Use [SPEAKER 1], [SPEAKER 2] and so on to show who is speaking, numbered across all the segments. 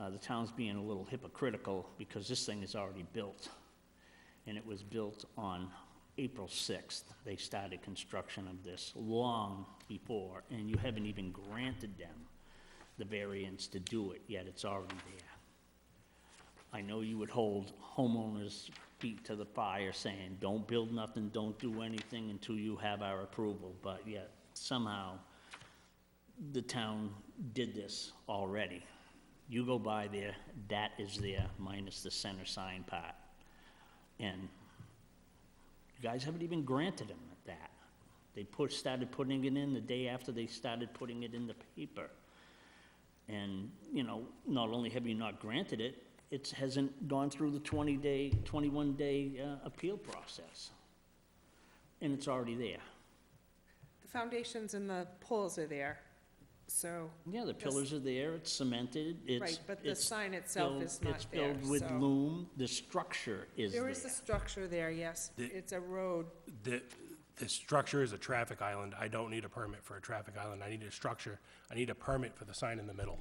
[SPEAKER 1] uh, the town's being a little hypocritical because this thing is already built. And it was built on April 6th. They started construction of this long before, and you haven't even granted them the variance to do it, yet it's already there. I know you would hold homeowners' feet to the fire saying, don't build nothing, don't do anything until you have our approval, but yet somehow the town did this already. You go by there, that is there, minus the center sign part. And you guys haven't even granted them that. They put, started putting it in the day after they started putting it in the paper. And, you know, not only have you not granted it, it hasn't gone through the 20-day, 21-day uh, appeal process. And it's already there.
[SPEAKER 2] The foundations and the poles are there, so,
[SPEAKER 1] Yeah, the pillars are there, it's cemented, it's...
[SPEAKER 2] right, but the
[SPEAKER 1] it's
[SPEAKER 2] sign itself
[SPEAKER 1] filled-
[SPEAKER 2] is not there,
[SPEAKER 1] It's filled with
[SPEAKER 2] so.
[SPEAKER 1] loom, the structure is
[SPEAKER 2] There
[SPEAKER 1] there.
[SPEAKER 2] is a structure there, yes.
[SPEAKER 3] The-
[SPEAKER 2] It's a road,
[SPEAKER 3] The, the structure is a traffic island. I don't need a permit for a traffic island. I need a structure. I need a permit for the sign in the middle.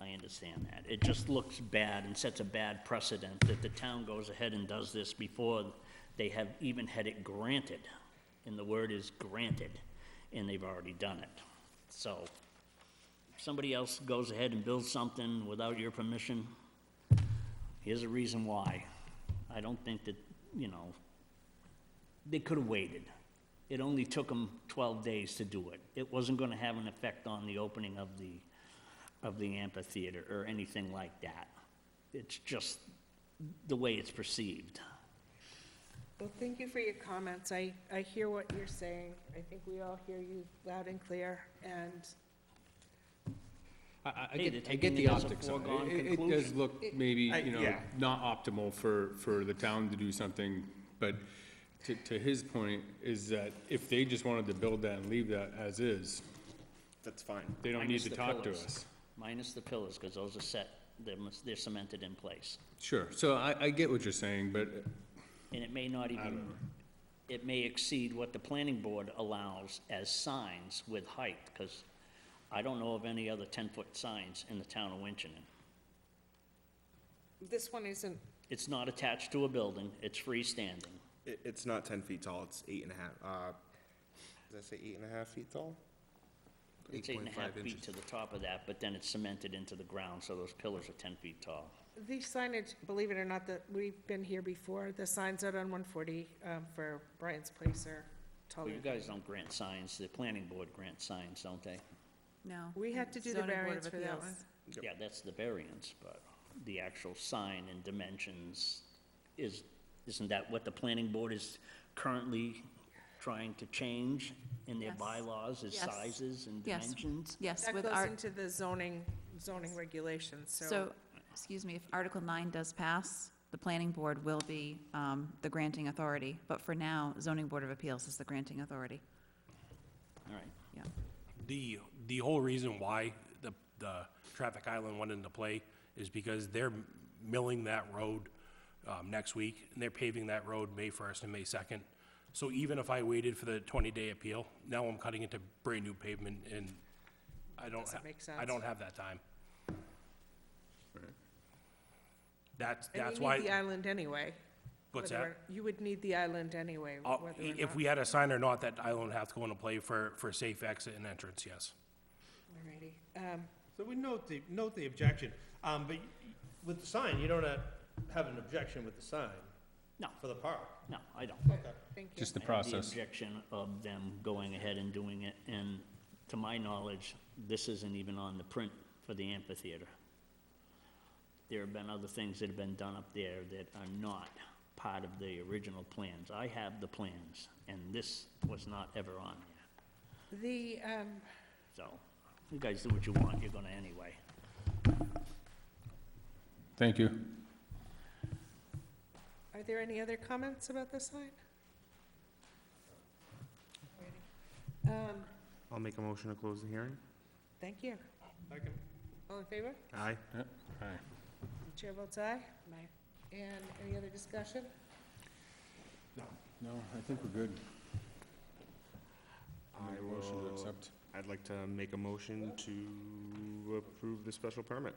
[SPEAKER 1] I understand that. It just looks bad and sets a bad precedent that the town goes ahead and does this before they have even had it granted. And the word is granted, and they've already done it. So, if somebody else goes ahead and builds something without your permission, here's a reason why. I don't think that, you know, they could have waited. It only took them 12 days to do it. It wasn't going to have an effect on the opening of the, of the amphitheater or anything like that. It's just the way it's perceived.
[SPEAKER 2] Well, thank you for your comments. I, I hear what you're saying. I think we all hear you loud and clear, and
[SPEAKER 4] I- I, I
[SPEAKER 1] Hey,
[SPEAKER 4] get,
[SPEAKER 1] they're
[SPEAKER 4] I get
[SPEAKER 1] taking
[SPEAKER 4] the
[SPEAKER 1] it as a
[SPEAKER 4] optics on
[SPEAKER 1] foregone
[SPEAKER 4] it. It- It does
[SPEAKER 1] conclusion.
[SPEAKER 4] look maybe,
[SPEAKER 3] I-
[SPEAKER 4] you know,
[SPEAKER 3] yeah.
[SPEAKER 4] not optimal for, for the town to do something, but to, to his point is that if they just wanted to build that and leave that as is,
[SPEAKER 3] That's fine.
[SPEAKER 4] they don't need
[SPEAKER 1] Minus
[SPEAKER 4] to
[SPEAKER 1] the
[SPEAKER 4] talk to
[SPEAKER 1] pillars.
[SPEAKER 4] us.
[SPEAKER 1] Minus the pillars, because those are set, they're mus- they're cemented in place.
[SPEAKER 4] Sure, so I, I get what you're saying, but
[SPEAKER 1] And it may not even, it may exceed what the planning board allows as signs with height, because I don't know of any other 10-foot signs in the town of Winchton.
[SPEAKER 2] this one isn't,
[SPEAKER 1] It's not attached to a building, it's freestanding.
[SPEAKER 5] It, it's not ten feet tall, it's eight and a half, uh, did I say eight and a half feet tall?
[SPEAKER 1] It's eight and a half
[SPEAKER 5] 8.5
[SPEAKER 1] feet
[SPEAKER 5] inches.
[SPEAKER 1] to the top of that, but then it's cemented into the ground, so those pillars are 10 feet tall.
[SPEAKER 2] the signage, believe it or not, that, we've been here before. The signs out on 140 um, for Brian's Place are taller.
[SPEAKER 1] Well, you guys don't grant signs, the planning board grants signs, don't they?
[SPEAKER 6] No.
[SPEAKER 2] We had to do the
[SPEAKER 6] Zoning Board
[SPEAKER 2] variance
[SPEAKER 6] of
[SPEAKER 2] for that
[SPEAKER 6] Appeals.
[SPEAKER 2] one.
[SPEAKER 1] Yeah, that's the variance, but the actual sign and dimensions is, isn't that what the planning board is currently trying to change in their
[SPEAKER 6] Yes.
[SPEAKER 1] bylaws, is
[SPEAKER 6] Yes.
[SPEAKER 1] sizes and
[SPEAKER 6] Yes.
[SPEAKER 1] dimensions?
[SPEAKER 6] Yes,
[SPEAKER 2] That
[SPEAKER 6] with
[SPEAKER 2] goes
[SPEAKER 6] our,
[SPEAKER 2] into the zoning, zoning regulations,
[SPEAKER 6] so, excuse me, if Article 9 does pass, the planning board will be um, the granting authority, but for now, zoning board of appeals is the granting authority.
[SPEAKER 1] All right,
[SPEAKER 6] Yeah.
[SPEAKER 3] The, the whole reason why the, the traffic island went into play is because they're milling that road, um, next week, and they're paving that road May first and May second. So even if I waited for the twenty-day appeal, now I'm cutting into brand-new pavement, and I don't,
[SPEAKER 2] Doesn't
[SPEAKER 3] ha-
[SPEAKER 2] make
[SPEAKER 3] I don't
[SPEAKER 2] sense.
[SPEAKER 3] have that time. That's,
[SPEAKER 2] And
[SPEAKER 3] that's
[SPEAKER 2] you
[SPEAKER 3] why.
[SPEAKER 2] need the island anyway.
[SPEAKER 3] What's
[SPEAKER 2] whether or- You would need the island anyway,
[SPEAKER 3] Uh,
[SPEAKER 2] whether or
[SPEAKER 3] If
[SPEAKER 2] not.
[SPEAKER 3] we had a sign or not, that island would have to go into play for, for safe exit and entrance, yes.
[SPEAKER 2] Alrighty. Um,
[SPEAKER 7] So we note the, note the objection, um, but with the sign, you don't have- have an objection with the sign
[SPEAKER 1] no,
[SPEAKER 7] for the park.
[SPEAKER 1] no, I don't.
[SPEAKER 2] Thank you.
[SPEAKER 4] just the
[SPEAKER 1] I have
[SPEAKER 4] process.
[SPEAKER 1] The objection of them going ahead and doing it, and to my knowledge, this isn't even on the print for the amphitheater. There have been other things that have been done up there that are not part of the original plans. I have the plans, and this was not ever on there.
[SPEAKER 2] The, um,
[SPEAKER 1] So, you guys do what you want, you're gonna anyway.
[SPEAKER 4] thank you.
[SPEAKER 2] are there any other comments about this sign? Um,
[SPEAKER 5] I'll make a motion to close the hearing.
[SPEAKER 2] Thank you. All in favor?
[SPEAKER 5] Aye.
[SPEAKER 4] Hi.
[SPEAKER 2] The Chair votes aye. And any other discussion?
[SPEAKER 4] No, I think we're good.
[SPEAKER 5] I
[SPEAKER 4] Motion to
[SPEAKER 5] will,
[SPEAKER 4] accept.
[SPEAKER 5] I'd like to make a motion to approve the special permit.